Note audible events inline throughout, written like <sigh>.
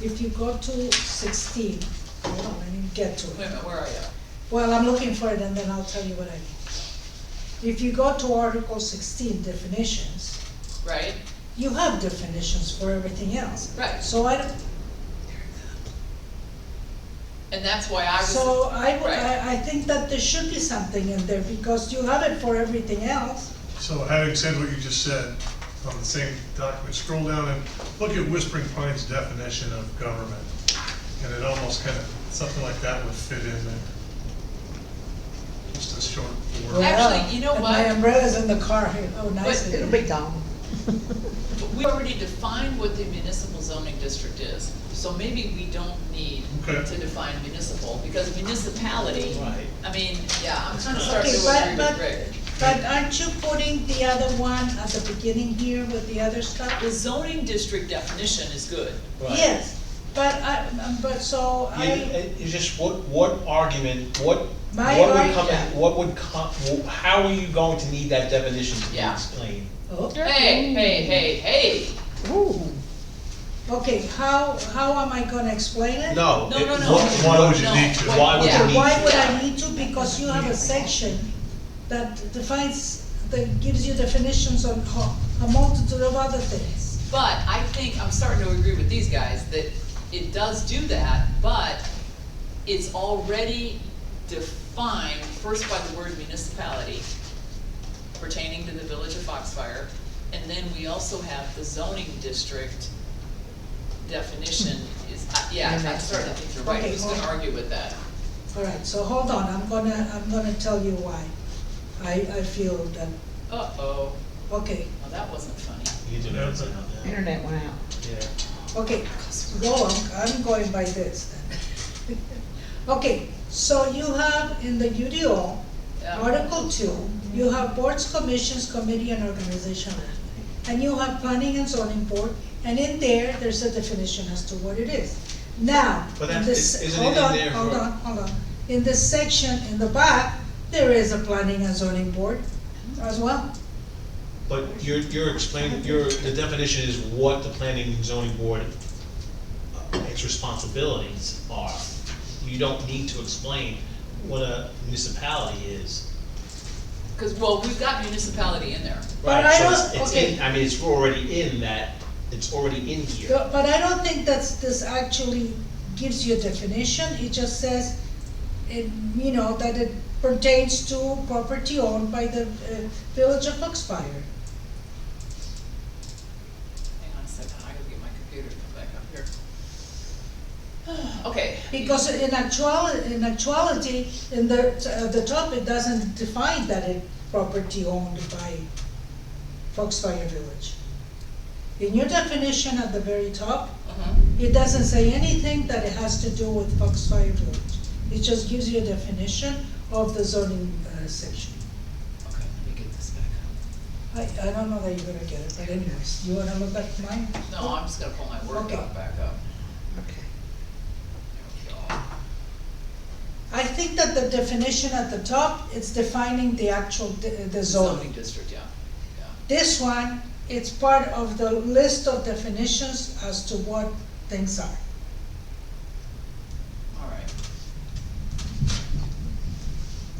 if you go to sixteen, hold on, I didn't get to Wait a it. minute, where are you? Well, I'm looking for it and then I'll tell you what I mean. If you go to Article sixteen definitions, Right? you have definitions for everything else. Right, So I, don't- and that's why I was. so I, would- Right. I, I think that there should be something in there because you have it for everything else. So having said what you just said on the same document, scroll down and look at Whispering Pines definition of government. And it almost kind of, something like that would fit in there. Just a short word. Actually, you know And what? My umbrella's in the car here, oh, nice. But it It'll is. be gone. But we already defined what the municipal zoning district is, so maybe we don't need Okay. to define municipal, because municipality, Right. I mean, yeah, I'm kind of starting Okay, to but- agree but- with Rick. But aren't you putting the other one at the beginning here with the other stuff? The zoning district definition is good. Right. Yes, but I, um, but so You- I, it- It's just what, what argument, what, My what would arg- come, yeah. what would come, how are you going to need that definition to be Yeah. explained? oh, Hey, hey, hey, hey, Ooh. okay, how, how am I gonna explain it? No. no, it- no, no. what- why no, would you need to? what- Why would you yeah. need Okay, why would Yeah. I need to? Because you have a section that defines, that gives you definitions on ho- a multitude of other things. But I think, I'm starting to agree with these guys, that it does do that, but it's already defined first by the word municipality pertaining to the village of Foxfire, and then we also have the zoning district definition is, uh, yeah, And I'm that's- starting to think you're right, Okay, who's gonna hold on. argue with that? All right, so hold on, I'm gonna, I'm gonna tell you why. I, I feel that, Uh-oh, okay, well, that wasn't funny. You did Yeah. it. Yeah. Internet went out. Yeah. okay, go, I'm, I'm going by this then. <laughs> Okay, so you have in the UDO, Yeah. Article two, you have boards, commissions, committee and organization. act. And you have planning and zoning board, and in there, there's a definition as to what it is. Now, But in that- this, isn't it hold in on, there hold for- on, hold on. In this section, in the back, there is a planning and zoning board as well. But you're, you're explaining, you're, the definition is what the planning and zoning board, uh, its responsibilities are. You don't need to explain what a municipality is. Cause, well, we've got municipality in there. But Right, I so don't- it's- it's okay. in- I mean, it's already in that, it's already in here. But but I don't think that's, this actually gives you a definition, it just says, it, you know, that it pertains to property owned by the uh, village of Foxfire. Hang on a second, I gotta get my computer to come back up here. <sighs> Okay. Because in actuality, in actuality, in the, uh, the top, it doesn't define that it property owned by Foxfire Village. In your definition at the very top, Uh-huh. it doesn't say anything that it has to do with Foxfire Village. It just gives you a definition of the zoning uh, section. Okay, let me get this back up. I, I don't know that you're gonna get it, but anyways, you wanna look at mine? No, I'm just gonna pull my Word Okay. doc back up. Okay. There we go. I think that the definition at the top, it's defining the actual, d- the zoning. Zoning district, yeah, yeah. This one, it's part of the list of definitions as to what things are. All right,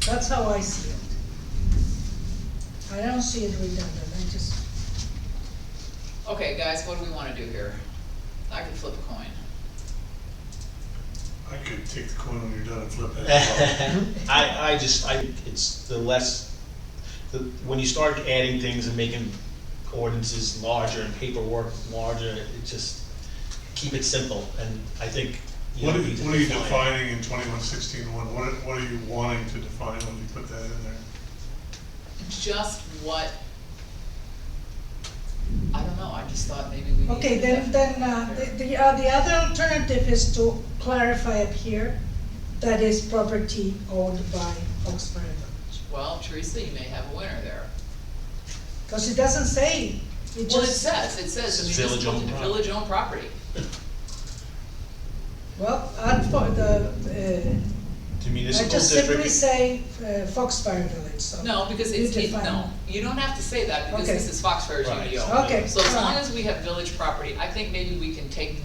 That's how I see it. I don't see it redundant, I just, okay, guys, what do we wanna do here? I can flip a coin. I could take the coin when you're done and flip <laughs> it. <laughs> I, I just, I, it's the less, the, when you start adding things and making ordinances larger and paperwork larger, it just, keep it simple, and I think. you What are, don't need to what are you define it. defining in twenty-one sixteen one? What, are- what are you wanting to define when you put that in there? Just what? I don't know, I just thought maybe we. okay, needed to then, def- then, uh, there. the, the, uh, the other alternative is to clarify up here, that is property owned by Foxfire Village. Well, Teresa, you may have a winner there. Cause it doesn't say, it Well, it just, says, it says It's village municipal, owned property. village owned property. well, i for the, uh, The I municipal just simply district, say uh, Foxfire Village, so. No, because you it's, it, define no, you don't have to say that, because Okay. this is Foxfire's Right. UDO. Okay, So as all long right. as we have village property, I think maybe we can take